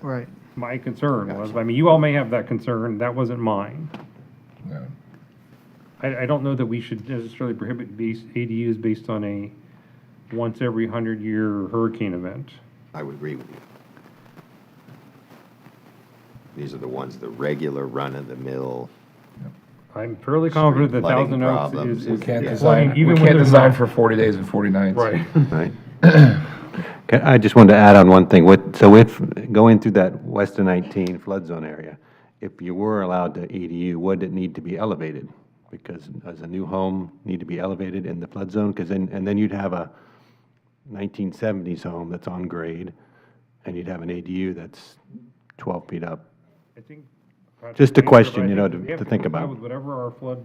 Right. my concern was. I mean, you all may have that concern, that wasn't mine. No. I, I don't know that we should necessarily prohibit these ADUs based on a once every hundred year hurricane event. I would agree with you. These are the ones, the regular run-of-the-mill. I'm fairly confident that Street flooding Thousand Oaks problems. is. We is can't Can't flooding even design, we when can't there's design not- for 40 days and 40 nights. Right. Hmm. Right. Okay, I just wanted to add on one thing. What, so if, going through that west of 19 flood zone area, if you were allowed to ADU, would it need to be elevated? Because does a new home need to be elevated in the flood zone? Because then, and then you'd have a 1970s home that's on grade, and you'd have an ADU that's 12 feet up. I think- I Just a think- question, you I know, think to- we have to think comply about. with Whatever our flood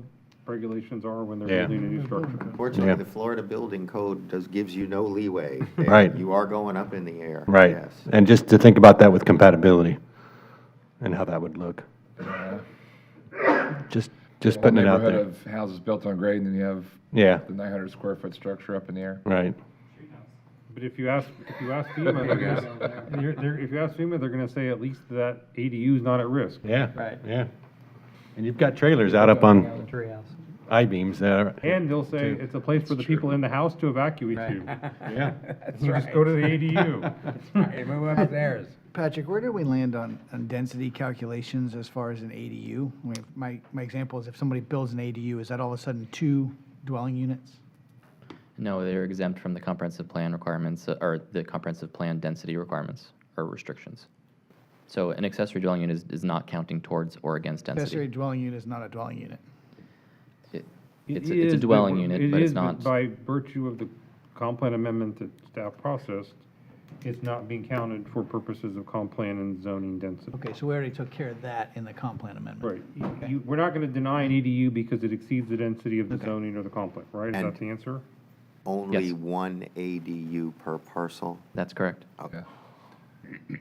regulations are when they're Yeah. building a new structure. Yeah. Fortunately, the Florida building code does, gives you no leeway. there. Right. You are going up in the air. Right. Yes. And just to think about that with compatibility and how that would look. Just, just Whole putting it out neighborhood there. of houses built on grade, and then you have Yeah, the 900 square foot structure up in the air. right. But if you ask, if you ask FEMA, they're gonna- you're- they're- if you ask FEMA, they're gonna say at least that ADU is not at risk. Yeah. Right. Yeah. And you've got trailers out up on Treehouse. I-beams there. And they'll say it's a place for the people in the house to evacuate to. Yeah. That's So just go to the ADU. Hey, move upstairs. Patrick, where do we land on, on density calculations as far as an ADU? I mean, my, my example is if somebody builds an ADU, is that all of a sudden two dwelling units? No, they're exempt from the comprehensive plan requirements, uh, or the comprehensive plan density requirements or restrictions. So an accessory dwelling unit is, is not counting towards or against Accessory density. dwelling unit is not a dwelling unit. It- It It's, a- it's is, a but dwelling we're- unit, it but it's is, not, By virtue of the comp plan amendment that staff processed, it's not being counted for purposes of comp plan and zoning density. Okay, so we already took care of that in the comp plan amendment. Right, You- you, we're not gonna deny an ADU because it exceeds the density of the Okay. zoning or the comp plan, right? Is And- that the answer? Only Yes. one ADU per parcel? that's correct. Yeah.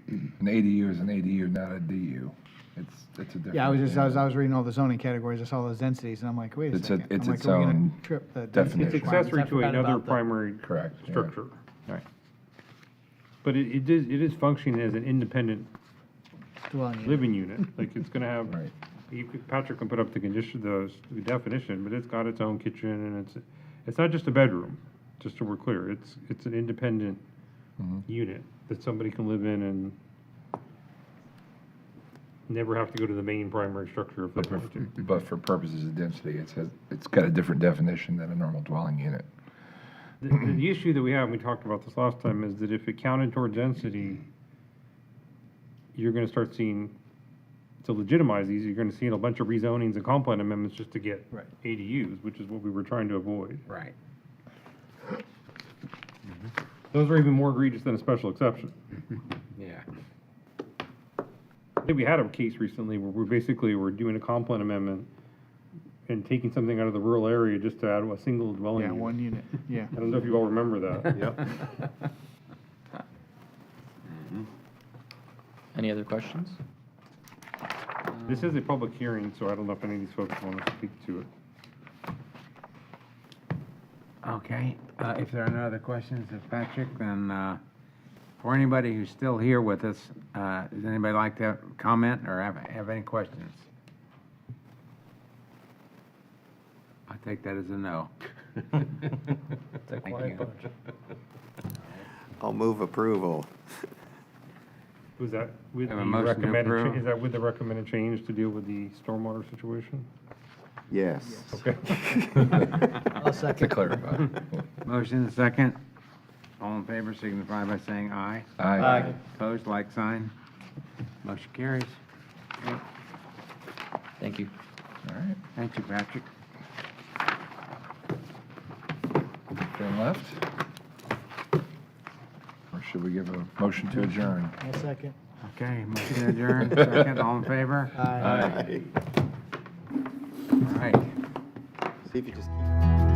An ADU is an ADU, not a DU. It's, it's a different. Yeah, I was just, I was, I animal. was reading all the zoning categories, I saw those densities, and I'm like, wait a It's a- second. I'm it's like, its are we gonna own trip the density definition. It's requirements? accessory I to forgot another about the- primary Correct, yeah. structure. All right. But it, it is, it is functioning as an independent Dwelling unit. living unit, like it's gonna have, Right. you could, Patrick can put up the condition, the, the definition, but it's got its own kitchen and it's, it's not just a bedroom, just so we're clear, it's, it's an independent unit that somebody can live in and never have to go to the main primary structure if they want to. But for purposes of density, it's, a- it's got a different definition than a normal dwelling unit. The, the- the issue that we have, and we talked about this last time, is that if it counted toward density, you're gonna start seeing, to legitimize these, you're gonna see a bunch of rezonings and comp plan amendments just to get Right. ADUs, which is what we were trying to avoid. Right. Mm-hmm. Those are even more egregious than a special exception. Yeah. I think we had a case recently where we basically were doing a comp plan amendment and taking something out of the rural area just to add a single dwelling Yeah, unit. one unit, yeah. I don't know if you all remember that. Any other questions? This is a public hearing, so I don't know if any of these folks want to speak to it. Okay, uh, if there are no other questions of Patrick, then, uh, for anybody who's still here with us, uh, does anybody like to comment or have, have any questions? I take that as a no. Thank you. I'll Oh, move approval. Was that with the Have a motion to recommended, cha- approve. is that with the recommended change to deal with the stormwater situation? Yes. Okay. I'll second. To clarify. Motion second. All in favor signify by saying aye. Aye. Opposed, like sign. Motion carries. Thank you. All right, Thank you, Patrick. turn left. Or should we give a motion to adjourn? I'll second. Okay, motion adjourned, second, all in favor? Aye. All right. See if you just keep.